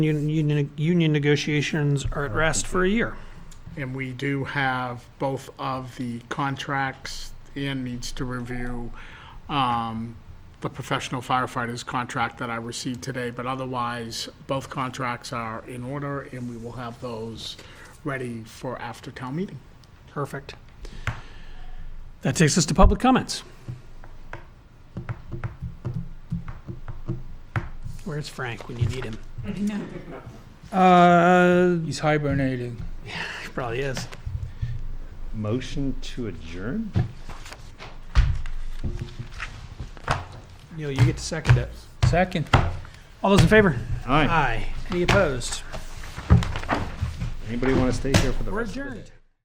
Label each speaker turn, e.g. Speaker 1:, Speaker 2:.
Speaker 1: Union, union- union negotiations are at rest for a year.
Speaker 2: And we do have both of the contracts. Ian needs to review um, the professional firefighters contract that I received today, but otherwise, both contracts are in order, and we will have those ready for after town meeting.
Speaker 1: Perfect. That takes us to public comments. Where's Frank when you need him? Uh,
Speaker 3: He's hibernating.
Speaker 1: he probably is.
Speaker 4: Motion to adjourn?
Speaker 1: Neil, you get to second it.
Speaker 3: Second.
Speaker 1: All those in favor?
Speaker 4: Aye.
Speaker 1: Uh, Aye. Any opposed?
Speaker 4: Anybody want to stay here for the
Speaker 1: We're
Speaker 4: rest of the day?
Speaker 1: adjourned.